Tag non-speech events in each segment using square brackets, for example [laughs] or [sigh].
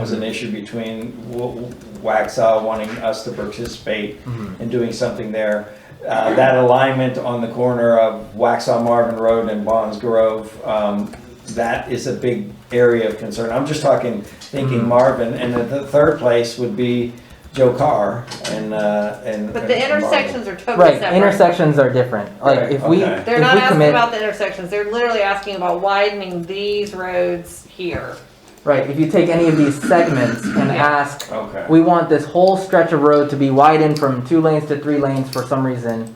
was an issue between W- Waxaw wanting us to participate Mm-hmm. in doing something there. Uh, That alignment on the corner of Waxaw Marvin Road and Bonds Grove, um, that is a big area of concern. I'm just talking, thinking Mm-hmm. Marvin, and then the third place would be Joe Carr and, uh, and. But the and Marvin. intersections are totally Right, separate. intersections are different. Like Right, if we, okay. if They're not we asking commit, about the intersections, they're literally asking about widening these roads here. right, if you take any of these segments and Yeah. ask, Okay. we want this whole stretch of road to be widened from two lanes to three lanes for some reason,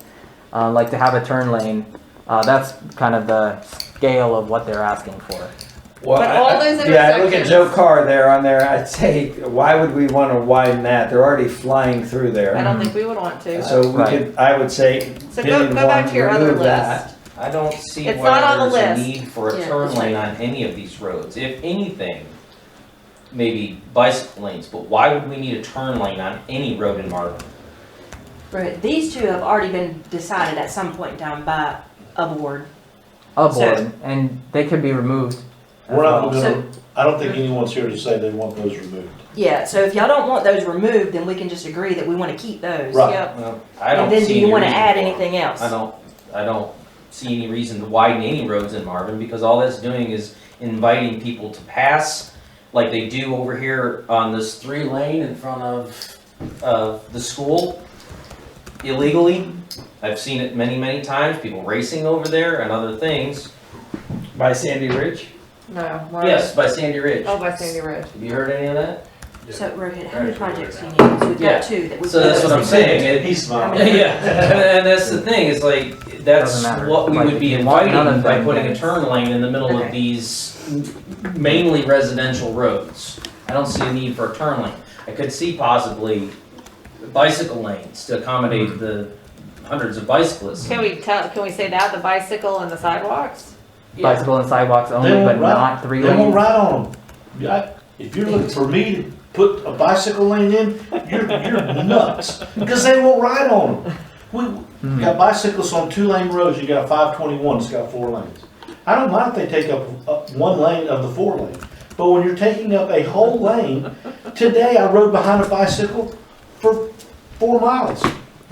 uh, like to have a turn lane, uh, that's kind of the scale of what they're asking for. Well, But I- all I- Yeah, I those look at intersections- Joe Carr there on there, I'd say, why would we wanna widen that? They're already flying through I there. don't think we would want to. So we Right. could, I would say, So go, Didn't go back want to your to other remove that. list. I don't see It's not why on the there's a list. need for a Yeah. turn lane on any of these roads. If anything, maybe bicycle lanes, but why would we need a turn lane on any road in Marvin? Right, these two have already been decided at some point in time by a board. A So- board, and they could be removed. as We're not well. gonna, Uh-huh. I don't think anyone's here to say they want those removed. Yeah, so if y'all don't want those removed, then we can just agree that we wanna keep those. Right. Yep. Well, I don't And then see do you any wanna reason add for it. anything else? I don't, I don't see any reason to widen any roads in Marvin, because all that's doing is inviting people to pass like they do over here on this three lane in front of, uh the school illegally. I've seen it many, many times, people racing over there and other things. by Sandy Ridge? No. why- Yes, by Sandy Ridge. Oh, by Sandy Ridge. Have you heard any of that? So Rohit, how many projects do you need? 'Cause We've Yeah. got two that we. So that's what I'm saying, it- [laughs] He's Yeah, smiling. and, and that's the thing, is like, that's Doesn't matter. what we Like, would be if you want inviting another by thing, putting then a turn lane in the middle of Okay. these mainly residential roads. I don't see a need for a turn lane. I could see possibly bicycle lanes to Hmm. accommodate the hundreds of bicyclists. Can we tell, can we say that, the bicycle and the sidewalks? Yeah, Bicycle and sidewalks only, won't but ride- not They three won't lanes. ride on them. Yeah, I- If you're looking for me to put a bicycle lane in, you're, you're nuts, because they won't ride on them. We Mhm. got bicycles on two lane roads, you got five twenty-one, it's got four lanes. I don't mind if they take up, up one lane of the four lane, but when you're taking up a whole lane, today I rode behind a bicycle for four miles.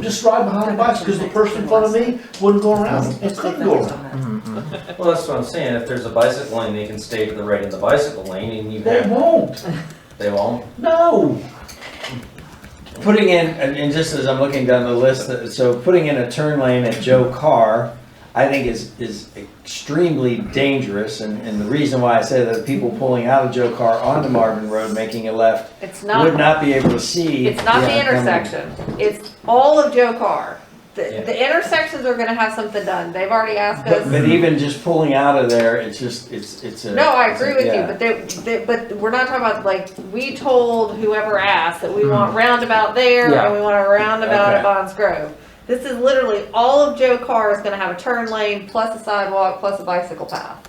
Just ride behind a bicycle, because the person in front of me wouldn't go around, it couldn't go around. Mhm, mhm. well, that's what I'm saying, if there's a bicycle lane, they can stay to the right of the bicycle lane and you They have, won't, they won't. no. Putting in, and and just as I'm looking down the list, uh, so putting in a turn lane at Joe Carr, I think is, is extremely dangerous, and, and the reason why I say that, people pulling out of Joe Carr onto Marvin Road, making a left, It's would not, not be able to see. it's not the Yeah, coming. intersection, it's all of Joe Carr. The, Yeah. the intersections are gonna have something done, they've already asked us. But, but even just pulling out of there, it's just, it's, it's a. No, I agree with you, yeah. but they, they, but we're not talking about, like, we told whoever asked that we want roundabout there Yeah. and we want a roundabout Okay. at Bonds Grove. This is literally, all of Joe Carr is gonna have a turn lane, plus a sidewalk, plus a bicycle path.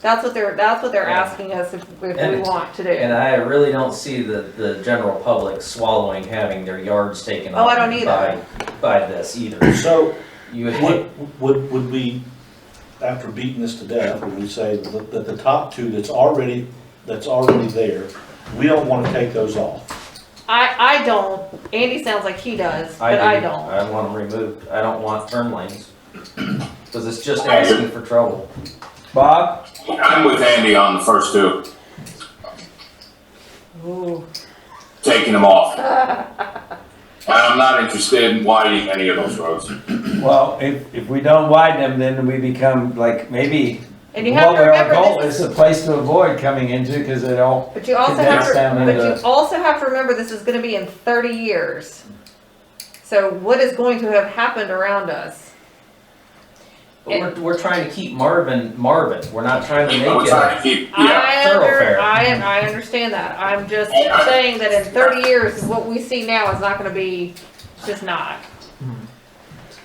That's what they're, that's what they're Yeah. asking us if, if we And- want to And do. I really don't see the, the general public swallowing having their yards taken Oh, I up don't either. by, by this either. So You, would, would, would we, after beating this to death, would we say that that the top two that's already, that's already there, we don't want to take those off? I, I don't, Andy sounds like he does, but I don't. I want them removed. I don't want turn lanes. Cause it's just asking for trouble. Bob, I'm with Andy on the first two, Ooh. taking them off. I'm not interested in widening any of those roads. well, if, if we don't widen them, then we become like, maybe And you have what to our goal remember this, is a place to avoid coming into because it all but you also have condensed to, down But you into. also have to remember this is gonna be in thirty years. So what is going to have happened around us? But we're, we're trying to keep Marvin, Marvin. We're not trying to We're make trying it. to keep, yeah, I under, thoroughfare. I, I understand that. I'm just saying that in thirty years, what we see now is not gonna be, it's just not.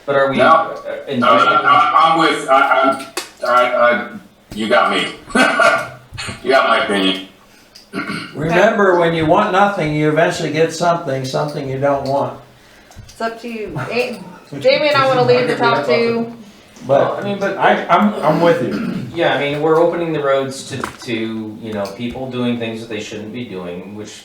But are we? No. uh, in- no, no, no, I'm with, I, I, I, I, you got me. [laughs] You got my opinion. Remember, when you want nothing, you eventually get something, something you don't want. It's up [laughs] to you. Eh, Jamie and I wanna leave the top two. Well, I But mean, but I, I'm, I'm with you. Yeah, I mean, we're opening the roads to, to, you know, people doing things that they shouldn't be doing, which